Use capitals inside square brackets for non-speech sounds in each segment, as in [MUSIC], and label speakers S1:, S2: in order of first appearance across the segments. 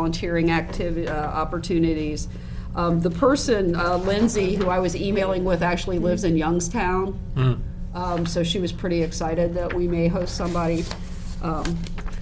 S1: volunteering activi- uh, opportunities. Um, The person, uh, Lindsay, who I was emailing with, actually lives in Youngstown.
S2: Hmm.
S1: Um, So she was pretty excited that we may host somebody. Um,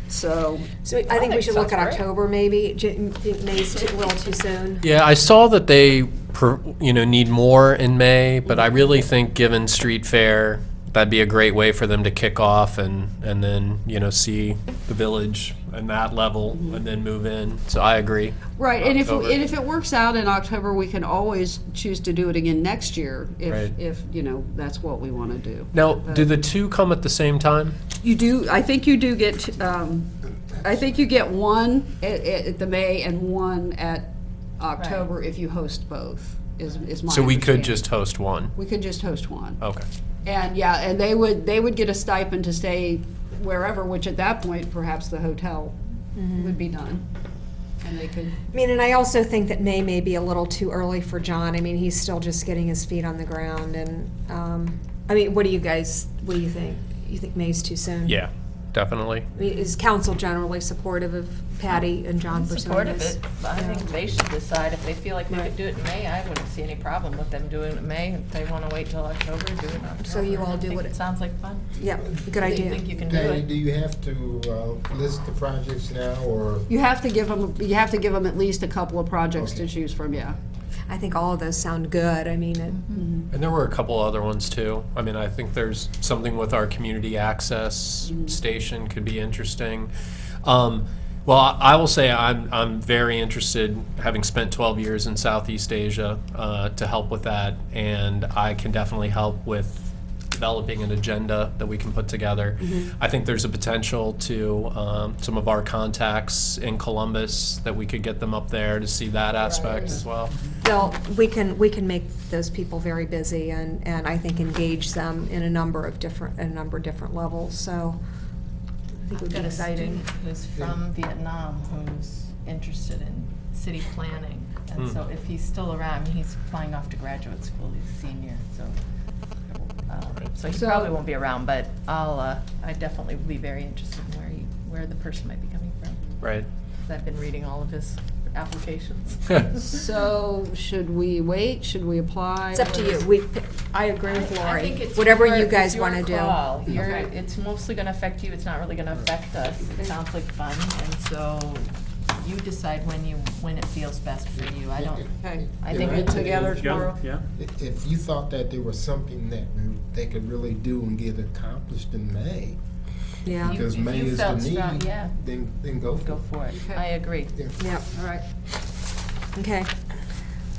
S1: So,
S3: So I think we
S4: think
S3: should look
S4: sounds
S3: at
S4: great.
S3: October, maybe. J- think May's too, a little too soon.
S2: Yeah, I saw that they, per- you know, need more in May, but I really think given street fair, that'd be a great way for them to kick off and, and then, you know, see the village and that level and then move in. So I agree.
S1: right, and if,
S2: October.
S1: and if it works out in October, we can always choose to do it again next year
S2: Right.
S1: if, if, you know, that's what we want to do.
S2: Now, do the two come at the same time?
S1: You do, I think you do get, um, I think you get one at, at at the May and one at October if you host both, is, is my
S2: So we could
S1: understanding.
S2: just Oh. host one?
S1: We could just host one.
S2: Okay.
S1: And, yeah, and they would, they would get a stipend to stay wherever, which at that point, perhaps the hotel would be done. And they could,
S3: I mean, and I also think that May may be a little too early for John. I mean, he's still just getting his feet on the ground and, um, I mean, what do you guys, what do you think? You think May's too soon?
S2: Yeah, definitely.
S3: I mean, is council generally supportive of Patty and John pursuing
S4: supportive of
S3: this?
S4: it, but I think they should decide if they feel like they could do it in May. I wouldn't see any problem with them doing it in May. If they want to wait till October, do it in October.
S3: So you all
S4: I
S3: do
S4: think
S3: what
S4: It
S3: it-
S4: sounds like fun.
S3: Yeah, good
S4: Do you
S3: idea.
S4: think you can do
S5: Patty, do
S4: it?
S5: you have to uh, list the projects now, or?
S1: you have to give them, you have to give them at least a couple of projects to choose from, yeah.
S3: I think all of those sound good. I mean, it-
S2: And there were a couple other ones too. I mean, I think there's something with our community access station could be interesting. Um, well, I I will say I'm, I'm very interested, having spent 12 years in Southeast Asia, uh, to help with that. And I can definitely help with developing an agenda that we can put together. I think there's a potential to um, some of our contacts in Columbus that we could get them up there to see that aspect as well.
S3: Well, we can, we can make those people very busy and, and I think engage them in a number of different, a number of different levels, so. I think it would
S4: I've
S3: be
S4: got a
S3: exciting.
S4: student who's from Vietnam who's interested in city planning. And
S2: Hmm.
S4: so if he's still around, he's flying off to graduate school, he's a senior, so. um, So he
S1: So-
S4: probably won't be around, but I'll, uh, I definitely will be very interested in where he, where the person might be coming from.
S2: Right.
S4: 'cause I've been reading all of his applications. [LAUGHS]
S1: So, should we wait, should we apply?
S3: It's up to you, we, I agree with
S4: I
S3: Lori,
S4: think it's
S3: whatever
S4: your-
S3: you
S4: it's
S3: guys
S4: your
S3: wanna do.
S4: call. You're- it's mostly gonna affect you, it's not really gonna affect us, it sounds like fun, and so you decide when you, when it feels best for you, I don't,
S1: Okay.
S4: I
S5: Yeah,
S4: think
S5: right.
S1: Get together
S5: Yeah.
S1: tomorrow?
S6: Yeah.
S5: If if you thought that there was something that we- they could really do and get accomplished in May,
S3: Yeah,
S4: You-
S5: because
S4: if
S5: May
S4: you
S5: is the
S4: felt strong,
S5: need,
S4: yeah.
S5: then, then go for
S4: go
S5: it.
S4: for it,
S1: Okay.
S4: I agree.
S5: Yeah.
S3: yeah,
S1: All right.
S3: okay.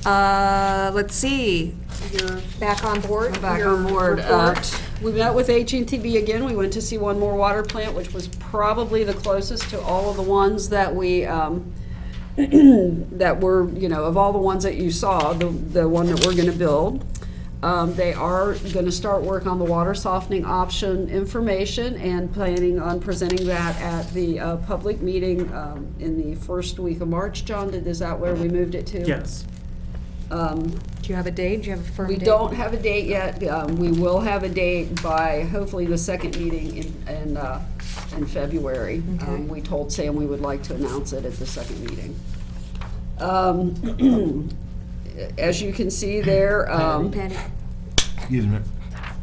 S3: Uh, let's see, you're back on board?
S1: We're back
S3: your
S1: on board. Uh,
S3: report?
S1: We met with at and T V again. We went to see one more water plant, which was probably the closest to all of the ones that we, um, [CLEARS THROAT] that were, you know, of all the ones that you saw, the, the one that we're gonna build. Um, They are gonna start work on the water softening option information and planning on presenting that at the uh, public meeting um, in the first week of March. John, did- is that where we moved it to?
S6: Yes.
S1: Um,
S3: Do you have a date, do you have a firm
S1: we
S3: date?
S1: don't have a date yet. Um, We will have a date by hopefully the second meeting in, in, uh, in February. Um,
S3: Okay.
S1: We told Sam we would like to announce it at the second meeting. Um, [CLEARS THROAT] As you can see there, um,
S3: Patty,
S5: Excuse me.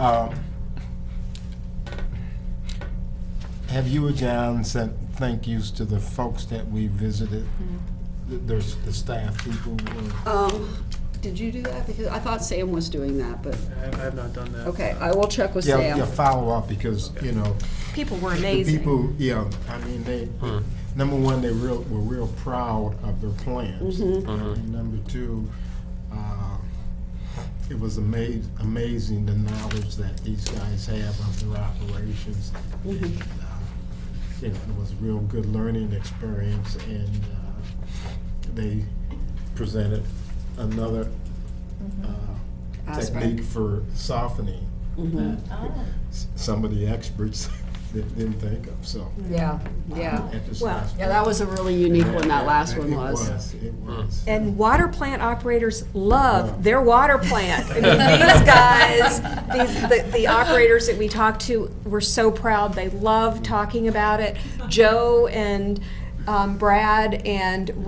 S5: Um, Have you or John sent thank yous to the folks that we visited?
S4: Mm-hmm.
S5: The- There's the staff people, or-
S1: um, did you do that? Because I thought Sam was doing that, but,
S6: I have, I have not done that.
S1: okay, I will check with
S5: yeah, yeah,
S1: Sam.
S5: follow up, because, you know,
S3: people were
S5: The
S3: amazing.
S5: people, yeah, I mean, they, number one, they real, were real proud of their plans.
S3: Mm-hmm.
S5: And number two, uh, it was amaz, amazing the knowledge that these guys have of their operations. And,
S3: Mm-hmm.
S5: uh, You know, it was a real good learning experience and, uh, they presented another,
S3: Mm-hmm.
S5: uh,
S1: Aspect.
S5: technique for softening that s- some of the experts [LAUGHS] didn't didn't think of, so.
S1: Yeah, yeah.
S5: at this
S3: Well,
S5: last
S1: Yeah, that was a really unique one, that last one
S5: It
S1: was.
S5: was, it was.
S3: And water plant operators love their water plant. I mean, these guys, these, the, the operators that we talked to were so proud. They love talking about it. Joe and um, Brad and